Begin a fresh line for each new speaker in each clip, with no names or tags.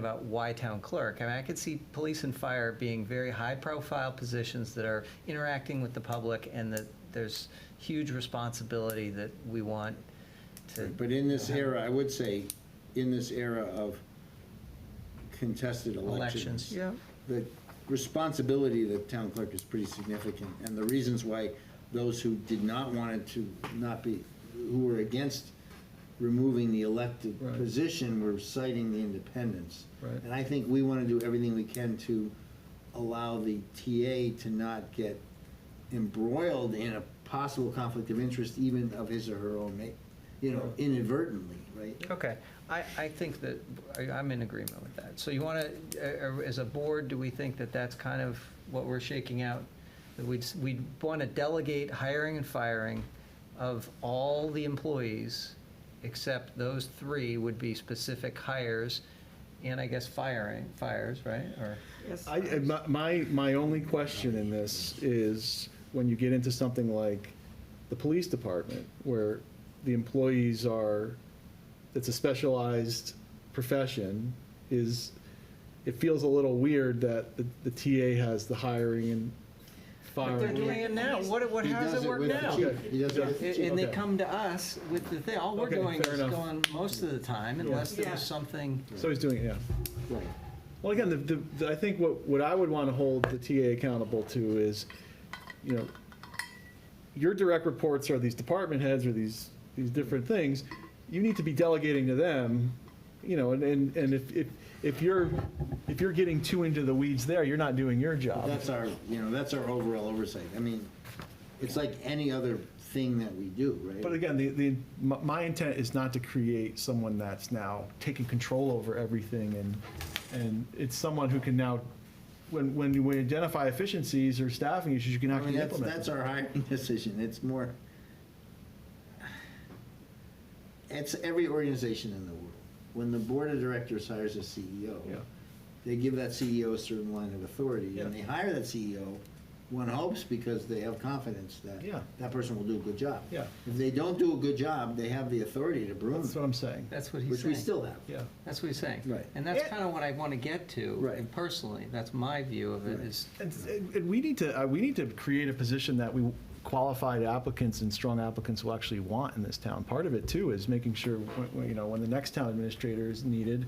about why town clerk. I mean, I could see police and fire being very high-profile positions that are interacting with the public and that there's huge responsibility that we want to,
But in this era, I would say, in this era of contested
elections.
elections,
Yeah.
the responsibility of the town clerk is pretty significant, and the reasons why those who did not want it to not be, who were against removing the elected
Right.
position were citing the independence.
Right.
And I think we want to do everything we can to allow the TA to not get embroiled in a possible conflict of interest, even of his or her own, ma- you know, inadvertently, right?
Okay, I, I think that, I- I'm in agreement with that. So you want to, as a board, do we think that that's kind of what we're shaking out? That we'd, s- we'd want to delegate hiring and firing of all the employees, except those three would be specific hires, and I guess firing, fires, right? Or,
Yes.
I, I- my- my, my only question in this is, when you get into something like the police department, where the employees are, it's a specialized profession, is, it feels a little weird that the, the TA has the hiring and
but they're
firing.
doing it now, what, what,
He
how does it work
with the
now?
chief. He does it with the
And
chief.
and they
Okay.
come to us with the thing, all we're
Okay,
doing
fair
is
enough.
going most of the time, unless there
Yeah.
was something.
So he's doing it, yeah.
Right.
Well, again, the, the, I think what, what I would want to hold the TA accountable to is, you know, your direct reports are these department heads or these, these different things. You need to be delegating to them, you know, and, and, and if, if, if you're, if you're getting too into the weeds there, you're not doing your job.
That's our, you know, that's our overall oversight. I mean, it's like any other thing that we do, right?
But again, the, the, my, my intent is not to create someone that's now taking control over everything and, and it's someone who can now, when, when we identify efficiencies or staffing issues, you can
I mean,
actually
that's,
implement them.
that's our hiring decision, it's more, it's every organization in the world. When the board of directors hires a CEO,
Yeah.
they give that CEO a certain line of authority, and
Yeah.
they hire that CEO, one hopes, because they have confidence that
Yeah.
that person will do a good job.
Yeah.
If they don't do a good job, they have the authority to broom
That's what
them,
I'm saying.
That's what he's
which
saying.
we still have.
Yeah.
That's what he's saying.
Right.
And that's
Yeah.
kind of what I want to get to.
Right.
And personally, that's my view of it
Right.
is,
And, and we need to, uh, we need to create a position that we qualified applicants and strong applicants will actually want in this town. Part of it too is making sure, when- when, you know, when the next town administrator is needed,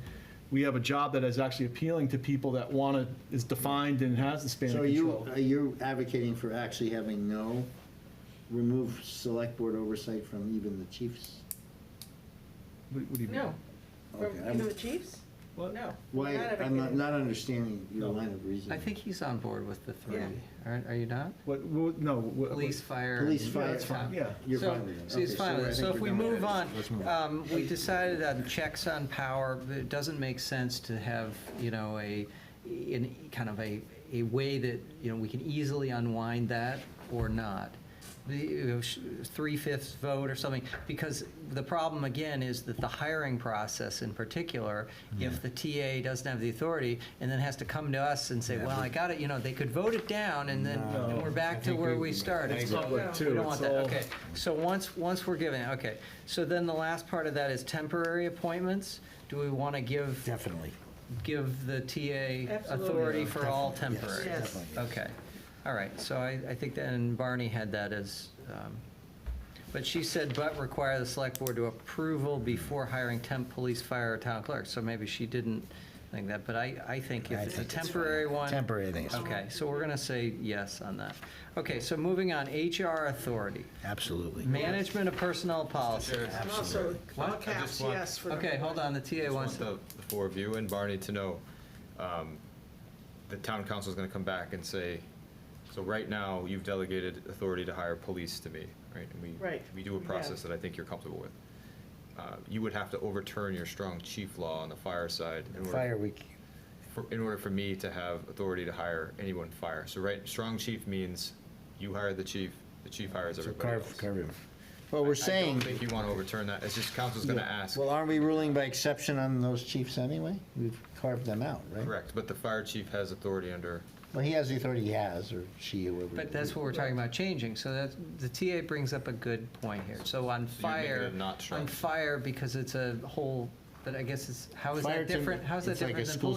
we have a job that is actually appealing to people that want to, is defined and has the span of
So are you,
control.
are you advocating for actually having no, remove select board oversight from even the chiefs?
What what do you mean?
No. From,
Okay,
you
I'm-
know, the chiefs?
What?
No.
Why,
not
I'm not,
everything.
not understanding your
No.
line of reasoning.
I think he's on board with the three.
Yeah.
Are, are you not?
What, what- no. what-
Police, fire.
Police,
and-
fire,
that's fine, yeah.
You're
So-
fine with it.
So he's
Okay,
fine with
I
it. So
think
if
we're
we
done with
move
that.
on,
Let's move on.
um, we decided on checks on power, that it doesn't make sense to have, you know, a, in, kind of a, a way that, you know, we can easily unwind that or not. The, you know, sh- three-fifths vote or something, because the problem again is that the hiring process in particular, if the TA doesn't have the authority and then has to come to us and say, well, I got it, you know, they could vote it down and then
No.
and we're back to
think
where
we-
we started.
It's
So-
public,
we
too.
don't want
It's
that,
all-
okay. So once, once we're given, okay. So then the last part of that is temporary appointments. Do we want to give,
Definitely.
give the TA
Absolutely.
authority for all
Definitely, yes,
temporary?
Yes.
Okay, all right. So I, I think that, and Barney had that as, um, but she said, but require the select board to approval before hiring temp, police, fire, or town clerk. So maybe she didn't think that, but I, I think if
I
it's a
think it's fine.
temporary one.
Temporary, I think it's fine.
Okay, so we're going to say yes on that. Okay, so moving on, HR authority.
Absolutely.
Management of personnel policy.
And also, all caps,
want-
yes. for
Okay, hold on, the TA
Just
wants
want
to,
the the four of you and Barney to know, um, the town council's gonna come back and say, so right now, you've delegated authority to hire police to me, right? And we-
Right,
We do a
we
process
have.
that I think you're comfortable with. Uh, You would have to overturn your strong chief law on the fire side in order
Fire week.
for- in order for me to have authority to hire anyone fire. So right, strong chief means you hire the chief, the chief hires
So
everybody else.
carve, carve him.
Well, we're
I don't
saying,
think you wanna overturn that, it's just council's gonna ask.
well, aren't we ruling by exception on those chiefs anyway? We've carved them out, right?
Correct, but the fire chief has authority under,
Well, he has the authority he has, or she, whoever. it
but that's
is.
what we're talking about changing, so that, the TA brings up a good point here. So on
So you're making
fire,
it not
on
strong.
fire, because it's a whole
But I guess it's, how is
Fire
that
timber-
different? How is that
it's like a
different than
school